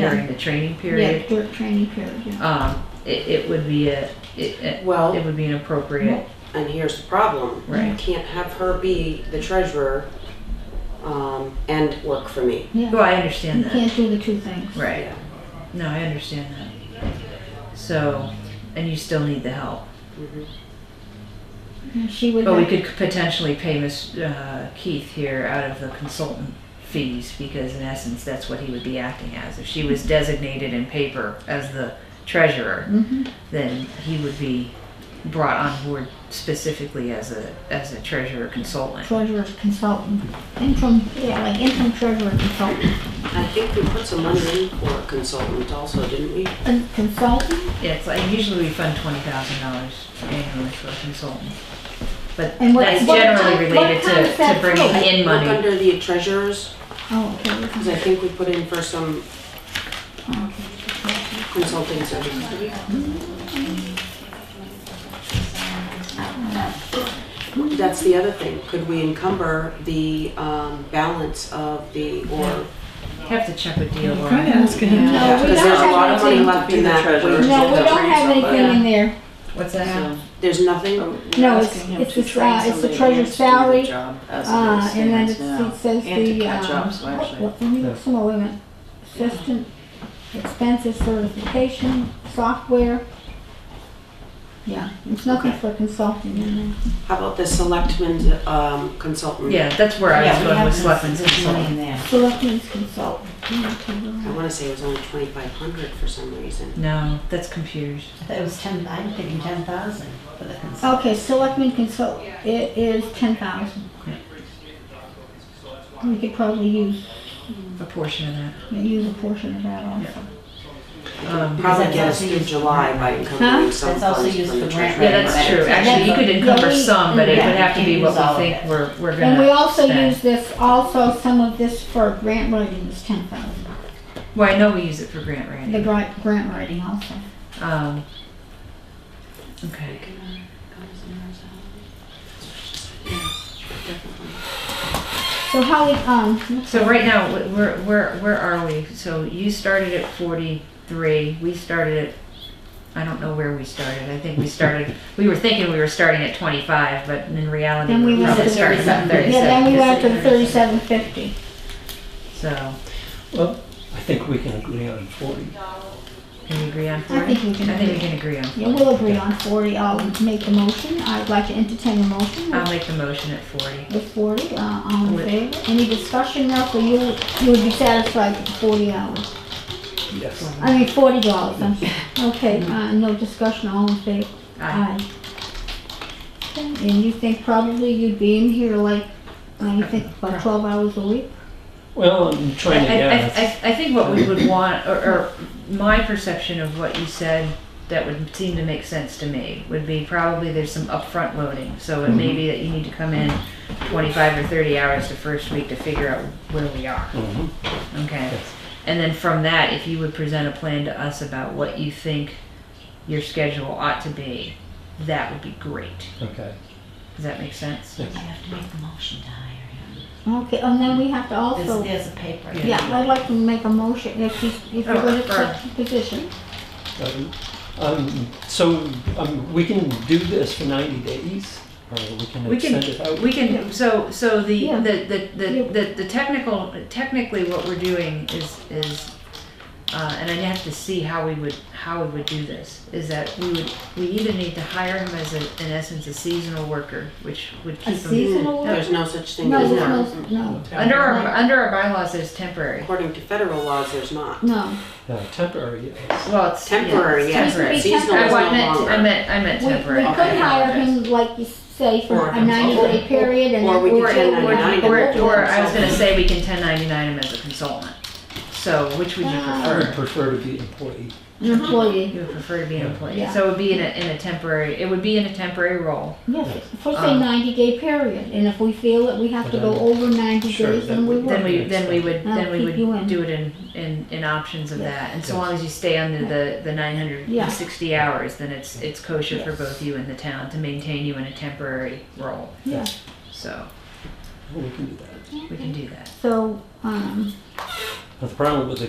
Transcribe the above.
during the training period, Yeah, work training period, yeah. um, it, it would be a, it, it- it Well, would be an appropriate, and here's the problem. You right? can't have her be the treasurer um, and work for me. Well, Yeah, I understand you that, can't do the two things. right? No, I understand that. So, and you still need the help. Mhm. And She would But we have, could potentially pay Miss uh, Keith here out of the consultant fees because in essence, that's what he would be acting as. If she was designated in paper as the treasurer, Mhm. then he would be brought on board specifically as a, as a treasurer consultant. treasurer consultant, interim, yeah, like interim treasurer consultant. I think we put some money in for a consultant also, didn't we? Con- Consultant, Yeah, it's like usually we fund twenty thousand dollars annually for a consultant. But And what- that's what generally kind- what related kind to, is that to bringing through? in Look money. under the treasurers, oh, okay, we can- because I think we put in for some okay. consulting services. That's the other thing. Could we encumber the um, balance of the, or Have to check with Try to DOR. ask him. No, we Because don't there's a have lot of money anything. left in that. Be the wage treasurer. No, we that don't brings have up, uh, anything in there, What's that? So, There's nothing? we're No, it's- asking him it's to the train sa- it's the somebody treasurer's else to do the salary, job as it uh, and then stands it's- now, it says and to the, catch um, up, so what- actually- what- let me look some more, wait a minute. Assistant, expenses, certification, software. Yeah, it's nothing for consulting in there. How about the selectmen's um, consultant? Yeah, that's where I was we going have with this- selectmen's this money consultant. in there. Selectmen's consultant. Yeah, okay, you're I right. want to say it was only 2,500 for some reason. No, that's computers. It was ten, I'm thinking ten thousand for the Oh. consult. Okay, selectmen consult, it is ten thousand. We could probably use, A portion of that. use a portion of that also. Um, Probably get Because that's us also through used for July by grant. encumbering some That's also funds used from the for grant treasury. Yeah, that's true. Actually, you could encumber some, but it would have to be what we think we're, we're And we gonna also spend. use this, also some of this for grant writing is ten thousand, Well, I know we use it for grant the writing. grant, grant writing also. Um, okay. So how we, um, So right now, wh- where, where, where are we? So you started at forty-three, we started at, I don't know where we started, I think we started, we were thinking we were starting at twenty-five, but in reality, Then we we were went probably to starting at 37. yeah, then thirty-seven. we went to thirty-seven fifty. So, Well, I think we can agree on 40. can we agree on I forty? think we I think we can, can agree on yeah, forty. we'll agree on forty, I'll make a motion, I'd like to entertain a motion. I'll make the motion at forty. with 40, uh, all in Oh. With- favor? Any discussion now, for you, you would be satisfied with 40 hours, Yes. I mean, $40, dollars, I'm sorry. Okay, uh, no discussion, all in favor? Aye. Okay, And you think probably you'd be in here like, uh, you think about 12 hours a week? Well, I'm I, trying to I- I- guess. I, I think what we would want, or, or my perception of what you said that would seem to make sense to me would be probably there's some upfront loading. So it may be that you need to come in 25 or 30 hours the first week to figure out where we are. Mhm. Okay. Yes. And then from that, if you would present a plan to us about what you think your schedule ought to be, that would be great. Okay. Does that make sense? I have to make the motion to hire him. Okay, and then we have to There's, also, there's a paper. yeah, I'd like to make a motion if you, if you Oh, would sure. accept the position. Um, um, So um, we can do this for 90 days, or we can We can- extend it out? We can, so, so the, Yeah. the, the, the, Yeah. the, the technical, technically what we're doing is, is, uh, and I'd have to see how we would, how we would do this, is that we would, we either need to hire him as a, in essence, a seasonal worker, which would A keep him. seasonal worker? There's no such thing No, as no, now. no, Under our, under our bylaws, there's temporary. According to federal laws, there's not. no. No, Uh, Temporary, yes. Well, it's. yeah, it's Temporary, yes. temporary. It should be Seasonal I is wa- I meant, no I longer. meant, I meant We, we temporary. could I hire apologize. him, like you say, for Or a ninety day period and Or then. we Or, could or, 1099 or, him. or I was gonna say we can ten ninety-nine him as a consultant. So which would you Ah. I prefer? would prefer to be employee. An employee, You would prefer to be an Yeah. employee, Yeah. so it would be in a, in a temporary, it would be in a temporary role. yes, for say Um, ninety day period, and if we feel that we have to go Then- over ninety Sure, days, then then we we- Then would. we, then we would, then we I'll keep you would in. do it in, in, in options of Yeah. that. And so Yes. long as you stay under the, the nine hundred and sixty hours, then it's, it's kosher for Yes. both you and the town to maintain you in a temporary role. Yeah, So, We can do that. we can do that. so, um. But The problem with the